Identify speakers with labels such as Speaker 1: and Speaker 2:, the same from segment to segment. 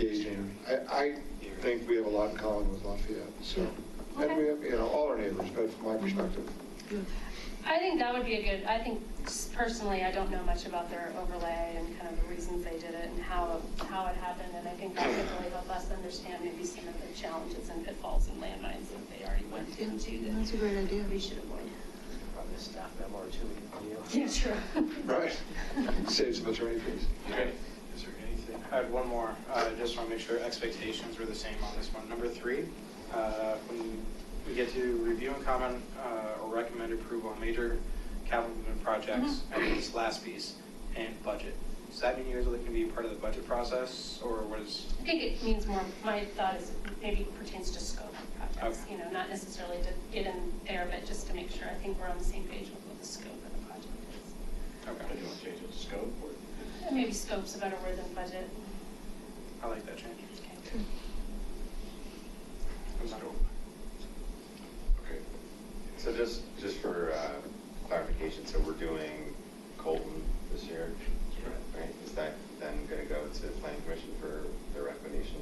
Speaker 1: engaging. I, I think we have a lot in common with Lafayette, so, and we have, you know, all our neighbors, but from my perspective.
Speaker 2: I think that would be a good, I think s- personally, I don't know much about their overlay and kind of the reasons they did it and how, how it happened. And I think that could really help us understand maybe some of the challenges and pitfalls and landmines that they already went into
Speaker 3: That's a
Speaker 2: that
Speaker 3: great idea.
Speaker 2: we should avoid.
Speaker 4: Probably a staff memo or two we can do.
Speaker 2: Yeah, true.
Speaker 1: Right. Saves some attorney fees.
Speaker 5: Okay. Is there anything?
Speaker 4: I had one more, uh, just want to make sure expectations were the same on this one. Number three, uh, when we get to review and comment uh, or recommend approval on major capital improvement projects, and then this last piece, and budget. Does that mean you guys are looking to be part of the budget process, or what is,
Speaker 2: I think it means more, my thought is maybe pertains to scope of projects,
Speaker 4: Okay.
Speaker 2: you know, not necessarily to get in there, but just to make sure, I think we're on the same page with what the scope of the project is.
Speaker 4: okay,
Speaker 5: I don't change the scope or?
Speaker 2: And Maybe scope's a better word than budget.
Speaker 4: I like that change.
Speaker 2: Okay.
Speaker 4: I'm not-
Speaker 6: Okay. So just, just for uh, clarification, so we're doing Colton this year, right? Is that then going to go to the planning commission for the recommendation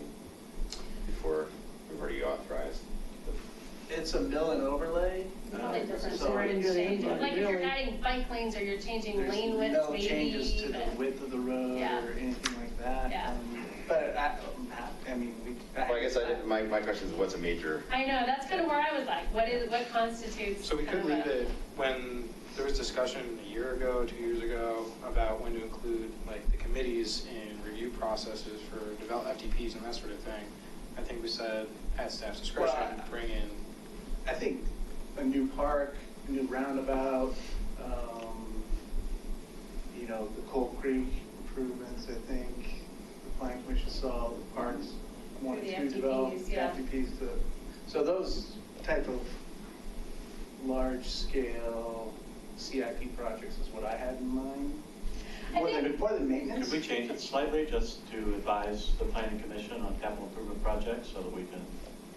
Speaker 6: before, we've already authorized? the-
Speaker 7: It's a mill and overlay. Uh,
Speaker 2: Totally different.
Speaker 7: So
Speaker 3: Right into the
Speaker 7: it's-
Speaker 3: engine.
Speaker 2: Like if you're
Speaker 3: Really?
Speaker 2: adding bike lanes or you're changing
Speaker 7: there's
Speaker 2: lane widths,
Speaker 7: No changes to
Speaker 2: maybe,
Speaker 7: the
Speaker 2: but
Speaker 7: width of the road
Speaker 2: Yeah.
Speaker 7: or anything like that.
Speaker 2: Yeah.
Speaker 7: Um, But I, I'm happy- I mean, we.
Speaker 6: Well, I guess I didn't, my, my question is what's a major?
Speaker 2: I know, that's kind of where I was like, what is, what constitutes?
Speaker 4: So we could
Speaker 2: kind of
Speaker 4: leave
Speaker 2: a-
Speaker 4: it, when there was discussion a year ago, two years ago, about when to include like the committees in review processes for develop FDPs and that sort of thing. I think we said at staff's discretion,
Speaker 7: Well, I-
Speaker 4: bring in,
Speaker 7: I think a new park, a new roundabout, um, you know, the Coal Creek improvements, I think, the planning commission saw the parks one
Speaker 2: The
Speaker 7: and two developed.
Speaker 2: FDPs, yeah.
Speaker 7: FDPs, the- so those type of large-scale CIP projects is what I had in mind.
Speaker 2: I
Speaker 7: More than,
Speaker 2: think-
Speaker 7: more than maintenance.
Speaker 5: Could we change it slightly just to advise the planning commission on capital improvement projects so that we can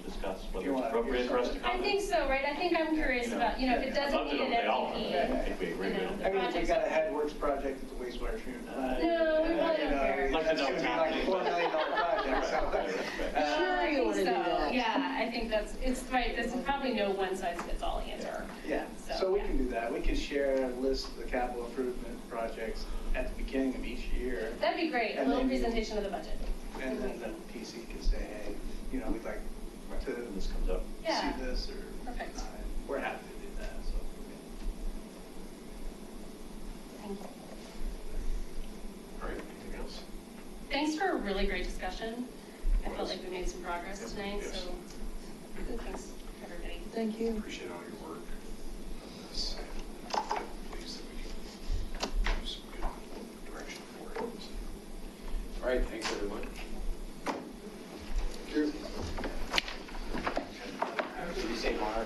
Speaker 5: discuss whether
Speaker 7: You
Speaker 5: it's
Speaker 7: wanna-
Speaker 5: appropriate for us to
Speaker 2: I
Speaker 5: comment?
Speaker 2: think so, right? I think I'm curious about, you know, if it
Speaker 5: I'd
Speaker 2: doesn't
Speaker 5: love to
Speaker 2: need
Speaker 5: know
Speaker 2: an
Speaker 5: what they all are.
Speaker 2: FDP.
Speaker 5: I don't think we agree
Speaker 2: you know,
Speaker 5: with
Speaker 7: I mean, if we
Speaker 2: projects-
Speaker 7: got a headworks project at the wastewater treatment plant.
Speaker 2: No, we
Speaker 7: uh,
Speaker 2: wouldn't.
Speaker 7: you know,
Speaker 5: Like the
Speaker 7: that's
Speaker 5: no
Speaker 7: gonna be
Speaker 5: cap.
Speaker 7: like a four million dollar project, so.
Speaker 5: Right,
Speaker 2: Uh,
Speaker 7: Uh,
Speaker 3: Sure
Speaker 2: I
Speaker 3: you
Speaker 2: think
Speaker 3: wanna do
Speaker 2: so.
Speaker 3: that.
Speaker 2: Yeah, I think that's, it's right, there's probably no one size fits all answer.
Speaker 7: Yeah, so we can do that. We can share a list of the capital improvement projects at the beginning of each year.
Speaker 2: That'd be great, a
Speaker 7: And
Speaker 2: little
Speaker 7: then-
Speaker 2: presentation of the budget.
Speaker 7: And then the PC can say, hey, you know, we'd like to
Speaker 5: When this comes up.
Speaker 2: Yeah.
Speaker 7: see this or.
Speaker 2: Perfect.
Speaker 7: not. We're happy to do that, so.
Speaker 2: Thank you.
Speaker 5: All right, anything else?
Speaker 2: Thanks for a really great discussion. I felt like we made some progress tonight,
Speaker 5: Yes.
Speaker 2: so thanks, everybody.
Speaker 3: Thank you.
Speaker 5: Appreciate all your work on this. I'm pleased that we have some good direction for it. All right, thanks, everyone.
Speaker 1: Thank you.
Speaker 4: you say one,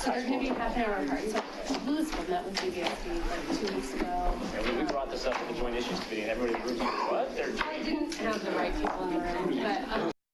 Speaker 2: So there's gonna be half an hour apart, so Lou's one, that was BBSD like two weeks ago.
Speaker 8: And we- we brought this up at the joint issues committee, and everybody was like, what? They're
Speaker 2: I didn't have the um, right people